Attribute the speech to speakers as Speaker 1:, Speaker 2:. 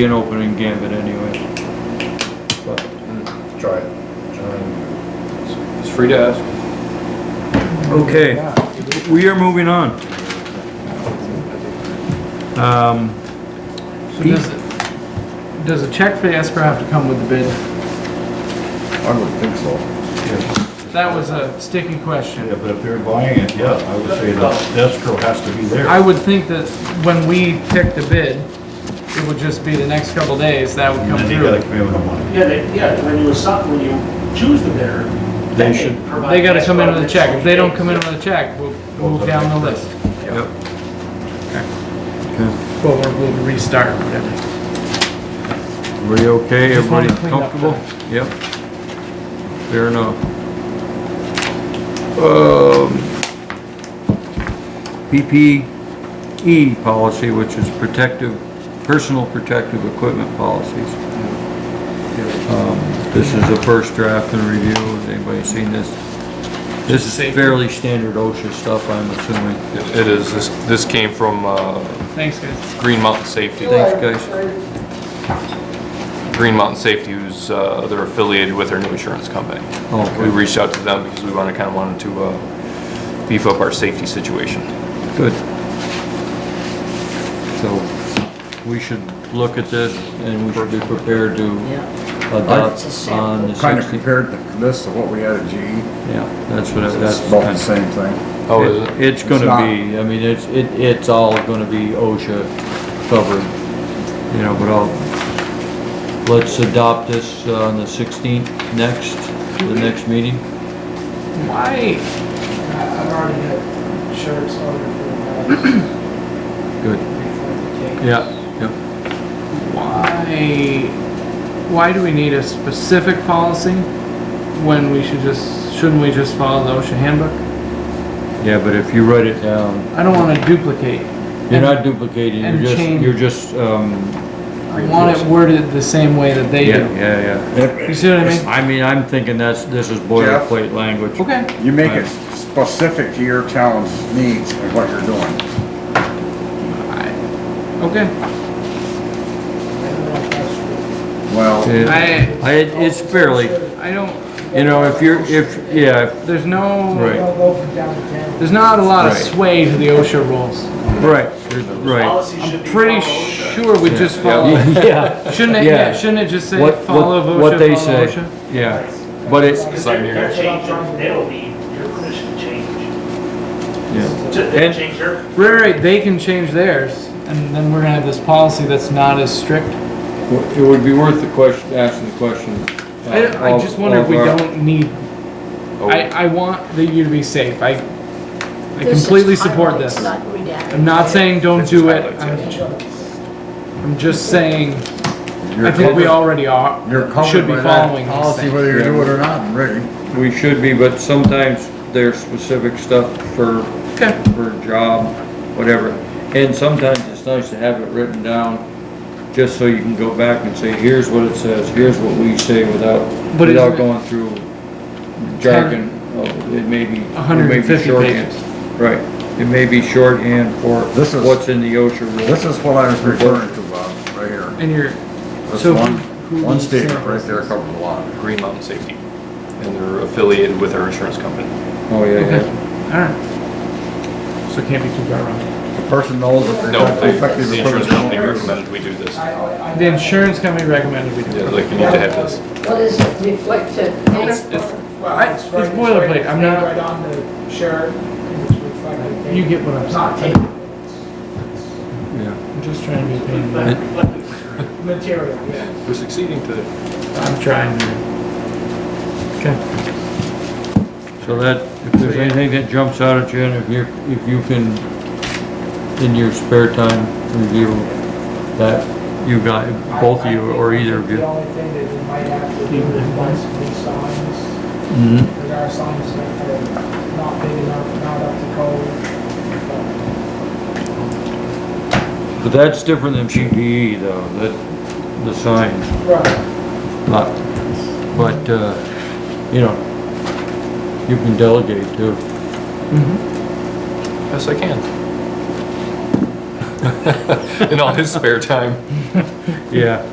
Speaker 1: be an opening gambit anyway. But
Speaker 2: mm, Try it. Try and-
Speaker 3: It's free to ask.
Speaker 1: Okay, we are moving on. Um,
Speaker 4: So does, it- does a check for the escrow have to come with the bid?
Speaker 2: I would think so.
Speaker 4: That was a sticky question.
Speaker 5: Yeah, but if they're buying it, yeah, I would say the escrow has to be there.
Speaker 4: I would think that when we pick the bid, it would just be the next couple days that would
Speaker 5: And
Speaker 4: come
Speaker 5: then you gotta
Speaker 4: through.
Speaker 5: come in with the money.
Speaker 6: Yeah, they, yeah, when you assign, when you choose the bidder, then they provide.
Speaker 4: They gotta come in with a
Speaker 6: escrow
Speaker 4: check. If they don't
Speaker 6: next
Speaker 4: come in
Speaker 6: day.
Speaker 4: with a check, we'll move down the list.
Speaker 1: yep.
Speaker 4: Well, we're- we'll restart, whatever.
Speaker 1: Everybody okay?
Speaker 4: Just
Speaker 1: Everybody
Speaker 4: wanted to clean up
Speaker 1: comfortable? Yep. Fair enough. Um, PPE E policy, which is protective, personal protective equipment policies. Um, This is the first draft and review. Has anybody seen this? This is
Speaker 4: Safety.
Speaker 1: fairly standard OSHA stuff, I'm assuming.
Speaker 3: It is, this, this came from, uh,
Speaker 4: Thanks, guys.
Speaker 3: Green Mountain Safety.
Speaker 1: Thanks, guys.
Speaker 3: Green Mountain Safety, who's, uh, they're affiliated with our new insurance company. We
Speaker 1: Okay,
Speaker 3: reached out to them because we wanted, kinda wanted to, uh, beef up our safety situation.
Speaker 1: good. So, we should look at this and we should be prepared to adopt on the
Speaker 2: Kind of
Speaker 1: sixty.
Speaker 2: compared the- this to what we had at GE.
Speaker 1: Yeah, that's what, I- that's.
Speaker 2: It's about
Speaker 1: kind
Speaker 2: the
Speaker 1: of-
Speaker 2: same thing.
Speaker 3: Oh, is it?
Speaker 1: It's gonna
Speaker 2: not.
Speaker 1: be, I mean, it's, it, it's all gonna be OSHA covered, you know, but I'll, let's adopt this uh, on the sixteenth next, the next meeting.
Speaker 4: Why?
Speaker 7: I've already got shirts ordered for the guys
Speaker 1: Good.
Speaker 7: before the game.
Speaker 1: Yeah. Yep.
Speaker 4: Why, why do we need a specific policy when we should just, shouldn't we just follow the OSHA handbook?
Speaker 1: Yeah, but if you write it down,
Speaker 4: I don't wanna duplicate.
Speaker 1: you're not duplicating,
Speaker 4: and
Speaker 1: you're just,
Speaker 4: change.
Speaker 1: you're just, um,
Speaker 4: I want it worded the same way that they
Speaker 1: yeah,
Speaker 4: do.
Speaker 1: yeah, yeah.
Speaker 4: You
Speaker 2: If
Speaker 4: see what I mean?
Speaker 1: I mean, I'm thinking that's, this is boilerplate language.
Speaker 4: Okay.
Speaker 2: You make it specific to your town's needs and what you're doing.
Speaker 4: Okay.
Speaker 7: I don't know if that's true.
Speaker 2: Well,
Speaker 4: I,
Speaker 1: I, it's fairly,
Speaker 4: I don't,
Speaker 1: you know, if you're, if, yeah,
Speaker 4: there's no,
Speaker 1: Right.
Speaker 7: They'll go from down to ten.
Speaker 4: there's not a lot of
Speaker 1: Right.
Speaker 4: sway to the OSHA rules.
Speaker 1: right, you're right.
Speaker 6: Policy should be
Speaker 4: Pretty
Speaker 6: followed.
Speaker 4: sure we just follow. it.
Speaker 1: Oh, Yeah.
Speaker 4: Shouldn't it,
Speaker 1: Yeah.
Speaker 4: yeah, shouldn't it just say
Speaker 1: What,
Speaker 4: follow
Speaker 1: what, what
Speaker 4: OSHA,
Speaker 1: they say,
Speaker 4: follow OSHA?
Speaker 1: yeah, but it's,
Speaker 6: Because
Speaker 3: Sign
Speaker 6: they're,
Speaker 3: here.
Speaker 6: they're changing, they'll need your permission to change.
Speaker 1: yeah,
Speaker 6: Ju- They'll
Speaker 1: And-
Speaker 6: change their,
Speaker 4: Right, right, they can change theirs and then we're gonna have this policy that's not as strict.
Speaker 1: it would be worth the question, asking the question. uh,
Speaker 4: I, I
Speaker 1: of-
Speaker 4: just wonder if
Speaker 1: of
Speaker 4: we
Speaker 1: our-
Speaker 4: don't need,
Speaker 1: Oh.
Speaker 4: I, I want the you to be safe. I, I completely support this. I'm not saying don't
Speaker 3: This is
Speaker 4: do it.
Speaker 3: highlights,
Speaker 4: I'm I'm just saying, I
Speaker 2: you're
Speaker 4: think we
Speaker 2: covered,
Speaker 4: already are,
Speaker 2: you're
Speaker 4: should
Speaker 2: covered
Speaker 4: be
Speaker 2: by
Speaker 4: following
Speaker 2: that
Speaker 4: these
Speaker 2: policy
Speaker 4: things.
Speaker 2: whether you
Speaker 1: Yeah.
Speaker 2: do it or not, really.
Speaker 1: We should be, but sometimes there's specific stuff for,
Speaker 4: Okay,
Speaker 1: for job, whatever. And sometimes it's nice to have it written down, just so you can go back and say, here's what it says, here's what we say without,
Speaker 4: But
Speaker 1: without
Speaker 4: isn't it-
Speaker 1: going through jargon. of- It may be. it may be
Speaker 4: hundred and fifty
Speaker 1: shorthand.
Speaker 4: pages.
Speaker 1: Right, it may be shorthand for
Speaker 2: This is-
Speaker 1: what's in the OSHA rule.
Speaker 2: This is what I was referring to, Bob, right here.
Speaker 4: And you're,
Speaker 2: This
Speaker 4: So
Speaker 2: one,
Speaker 4: who- who
Speaker 2: one
Speaker 4: needs
Speaker 2: statement right
Speaker 4: samples?
Speaker 2: there covers a lot.
Speaker 3: Oh, Green Mountain Safety, and they're affiliated with our insurance company.
Speaker 1: Oh, yeah,
Speaker 4: okay,
Speaker 1: yeah.
Speaker 4: alright. So it can't be too far wrong.
Speaker 2: The person knows that they're
Speaker 3: No, they-
Speaker 2: effective.
Speaker 3: the insurance company recommended we do this. Yeah,
Speaker 7: I- I-
Speaker 4: The insurance company recommended we do it.
Speaker 3: like, you need to have this.
Speaker 8: What is it reflected?
Speaker 4: It's, it's,
Speaker 7: Well, it's
Speaker 4: it's
Speaker 7: right-
Speaker 4: boilerplate.
Speaker 7: right-
Speaker 4: I'm not-
Speaker 7: Right on the shirt. and it's reflected there.
Speaker 4: You get what I'm
Speaker 7: It's Not
Speaker 4: saying.
Speaker 7: tape.
Speaker 1: Yeah.
Speaker 4: I'm just trying to be a pain. in the butt.
Speaker 6: reflect- reflect-
Speaker 7: It's Material, yeah.
Speaker 3: We're succeeding today.
Speaker 4: I'm trying to. Okay.
Speaker 1: So that, if there's anything that jumps out at you, and if you, if you can, in your spare time, review that, you got, both of you, or either of
Speaker 7: The
Speaker 1: you.
Speaker 7: only thing that we might have to do is buy some new signs.
Speaker 1: Mhm.
Speaker 7: Because our signs are not big enough, not up to code.
Speaker 1: But that's different than PPE though, that, the signs,
Speaker 7: Right.
Speaker 1: but, but, uh, you know, you can delegate too.
Speaker 3: Yes, I can. in all his spare time.
Speaker 1: Yeah.